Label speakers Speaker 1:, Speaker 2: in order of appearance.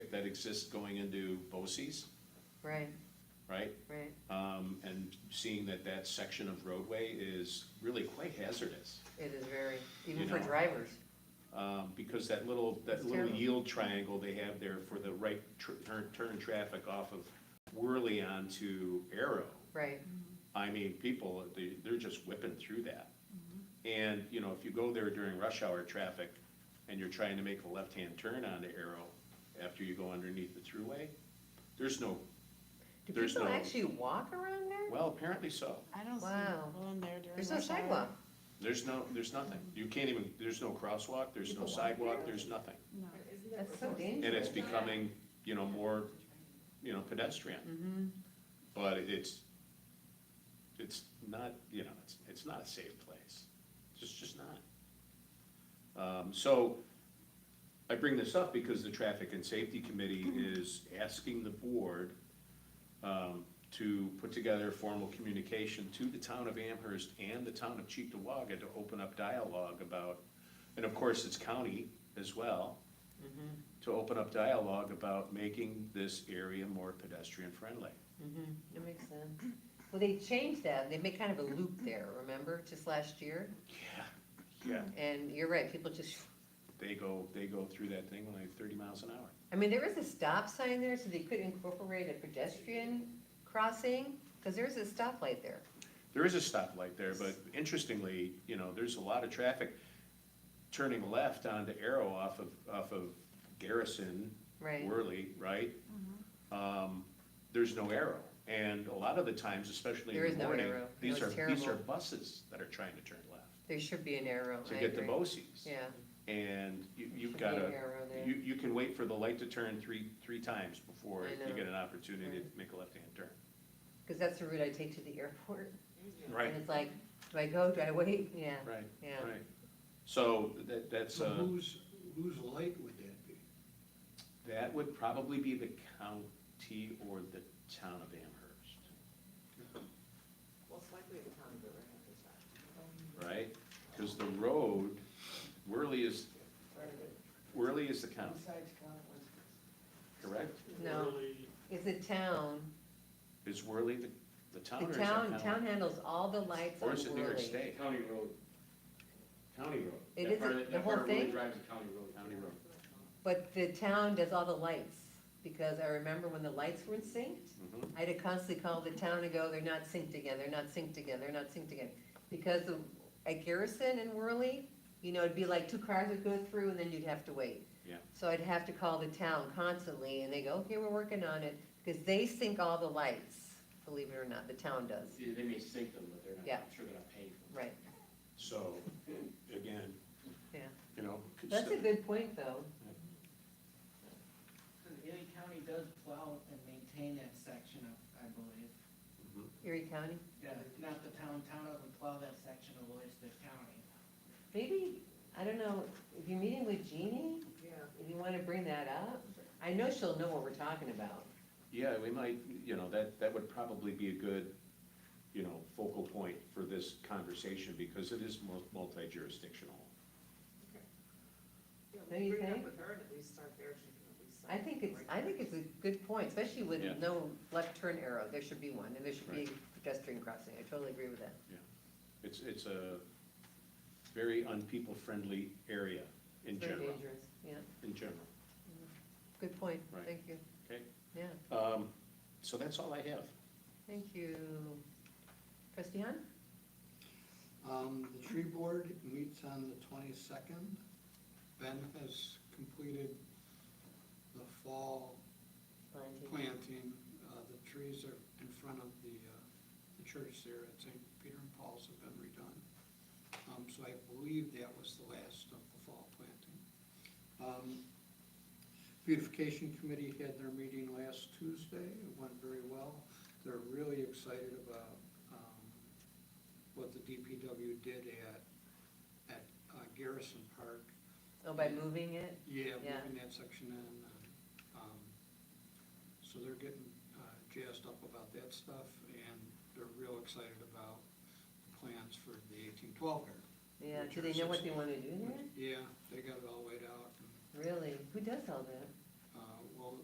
Speaker 1: that exists going into Bosse's,
Speaker 2: right,
Speaker 1: right?
Speaker 2: right,
Speaker 1: Um, and seeing that that section of roadway is really quite hazardous.
Speaker 2: it is very, even
Speaker 1: You
Speaker 2: for
Speaker 1: know.
Speaker 2: drivers,
Speaker 1: Um, because that little, that
Speaker 2: It's
Speaker 1: little
Speaker 2: terrible.
Speaker 1: yield triangle they have there for the right tr- turn, turn traffic off of Worley onto Arrow.
Speaker 2: right,
Speaker 1: I mean, people, they, they're just whipping through that.
Speaker 2: Mm-hmm.
Speaker 1: And, you know, if you go there during rush hour traffic and you're trying to make a left-hand turn onto Arrow after you go underneath the thruway, there's no,
Speaker 2: do
Speaker 1: There's
Speaker 2: people
Speaker 1: no-
Speaker 2: actually walk around there?
Speaker 1: well, apparently so.
Speaker 3: I don't see
Speaker 2: Wow.
Speaker 3: people in there during rush
Speaker 2: There's no
Speaker 3: hour.
Speaker 2: sidewalk,
Speaker 1: There's no, there's nothing. You can't even, there's no crosswalk, there's no sidewalk, there's nothing.
Speaker 3: No.
Speaker 2: that's so
Speaker 1: And
Speaker 2: dangerous.
Speaker 1: it's becoming, you know, more, you know, pedestrian. But it's, it's not, you know, it's, it's not a safe place. It's just- just not. Um, so I bring this up because the Traffic and Safety Committee is asking the board um, to put together a formal communication to the town of Amherst and the town of Cheektowaga to open up dialogue about, and of course, it's county as well,
Speaker 2: Mm-hmm,
Speaker 1: to open up dialogue about making this area more pedestrian friendly.
Speaker 2: Mhm, That makes sense. Well, they changed that, they made kind of a loop there, remember, just last year?
Speaker 1: Yeah, yeah,
Speaker 2: And you're right, people just,
Speaker 1: they go, they go through that thing like thirty miles an hour.
Speaker 2: I mean, there is a stop sign there, so they could incorporate a pedestrian crossing, because there's a stoplight there.
Speaker 1: There is a stoplight there, but interestingly, you know, there's a lot of traffic turning left onto Arrow off of, off of Garrison,
Speaker 2: Right. Mm-hmm.
Speaker 1: Worley, right? Um, there's no arrow, and a lot of the times, especially
Speaker 2: There
Speaker 1: in
Speaker 2: is
Speaker 1: the
Speaker 2: no
Speaker 1: morning,
Speaker 2: arrow. It
Speaker 1: these
Speaker 2: was
Speaker 1: are, these are
Speaker 2: terrible.
Speaker 1: buses that are trying to turn left
Speaker 2: There should be an arrow,
Speaker 1: to
Speaker 2: I
Speaker 1: get to
Speaker 2: agree.
Speaker 1: Bosse's.
Speaker 2: Yeah.
Speaker 1: And you, you've
Speaker 2: Should
Speaker 1: got
Speaker 2: be
Speaker 1: to,
Speaker 2: an arrow there.
Speaker 1: you, you can wait for the light to turn three, three times before
Speaker 2: I
Speaker 1: you
Speaker 2: know.
Speaker 1: get an opportunity to
Speaker 2: Right.
Speaker 1: make a left-hand turn.
Speaker 2: Because that's the route I take to the airport.
Speaker 1: Right,
Speaker 2: And it's like, do I go, do I wait? Yeah,
Speaker 1: right,
Speaker 2: yeah.
Speaker 1: right. So that, that's,
Speaker 4: So
Speaker 2: Mm-hmm.
Speaker 1: uh,
Speaker 4: whose, whose light would that be?
Speaker 1: that would probably be the county or the town of Amherst,
Speaker 5: Most likely the town of Riverhead is that.
Speaker 1: right? Because the road, Worley is, Worley is the county,
Speaker 5: Besides Conant Winston.
Speaker 1: correct?
Speaker 2: No, it's a town.
Speaker 1: Is Worley the, the town
Speaker 2: The
Speaker 1: or is that
Speaker 2: town,
Speaker 1: county?
Speaker 2: town handles all the lights on
Speaker 1: Or
Speaker 2: Worley.
Speaker 1: is it New York State?
Speaker 6: County road. County road.
Speaker 2: It
Speaker 6: That
Speaker 2: is
Speaker 6: part
Speaker 2: a- the whole
Speaker 6: of- That part really
Speaker 2: thing?
Speaker 6: drives a county road.
Speaker 1: County road.
Speaker 2: But the town does all the lights, because I remember when the lights weren't synced,
Speaker 1: Mhm.
Speaker 2: I had to constantly call the town and go, they're not synced again, they're not synced again, they're not synced again. Because of- at Garrison and Worley, you know, it'd be like two cars would go through and then you'd have to wait.
Speaker 1: Yeah.
Speaker 2: So I'd have to call the town constantly, and they go, okay, we're working on it, because they sync all the lights, believe it or not, the town does,
Speaker 6: Yeah, They may sink them, but they're not,
Speaker 2: Yeah.
Speaker 6: I'm sure they're not paying for them.
Speaker 2: right.
Speaker 1: So, again.
Speaker 2: Yeah.
Speaker 1: You know.
Speaker 2: That's a good point, though.
Speaker 7: Erie County does plow and maintain that section, I- I believe.
Speaker 2: Erie County,
Speaker 7: Yeah, not the town, town doesn't plow that section of Lloydston County.
Speaker 2: maybe, I don't know, if you're meeting with Jeannie,
Speaker 5: Yeah.
Speaker 2: if you wanna bring that up, I know she'll know what we're talking about.
Speaker 1: Yeah, we might, you know, that, that would probably be a good, you know, focal point for this conversation because it is mul- multi-jurisdictional.
Speaker 5: Yeah,
Speaker 2: Don't you
Speaker 5: we'll bring it
Speaker 2: think?
Speaker 5: up with her and at least start there, she can at least.
Speaker 2: I think it's, I think it's a good point, especially with
Speaker 1: Yeah.
Speaker 2: no left turn arrow, there should be one, and there should be pedestrian crossing, I totally agree with that.
Speaker 1: It's, it's a very unpeople-friendly area in
Speaker 2: It's very
Speaker 1: general,
Speaker 2: dangerous, yeah,
Speaker 1: in general.
Speaker 2: good point,
Speaker 1: Right.
Speaker 2: thank you.
Speaker 1: Okay.
Speaker 2: Yeah,
Speaker 1: Um, so that's all I have.
Speaker 2: thank you. Trustee Han?
Speaker 4: Um, the tree board meets on the twenty-second. Ben has completed the fall planting. Uh, the trees are in front of the, uh, the church there at St. Peter and Paul's have been redone. Um, so I believe that was the last of the fall planting. Um, Beautification Committee had their meeting last Tuesday. It went very well. They're really excited about, um, what the DPW did at, at uh, Garrison Park.
Speaker 2: Oh, by moving it,
Speaker 4: Yeah,
Speaker 2: Yeah.
Speaker 4: moving that section in, uh, um, so they're getting uh, jazzed up about that stuff, and they're real excited about the plans for the eighteen twelve yard.
Speaker 2: yeah,
Speaker 4: Which
Speaker 2: do
Speaker 4: are
Speaker 2: they know what they
Speaker 4: six-
Speaker 2: wanna do there?
Speaker 4: Yeah, they got it all laid out, and uh,
Speaker 2: Really, who does all that?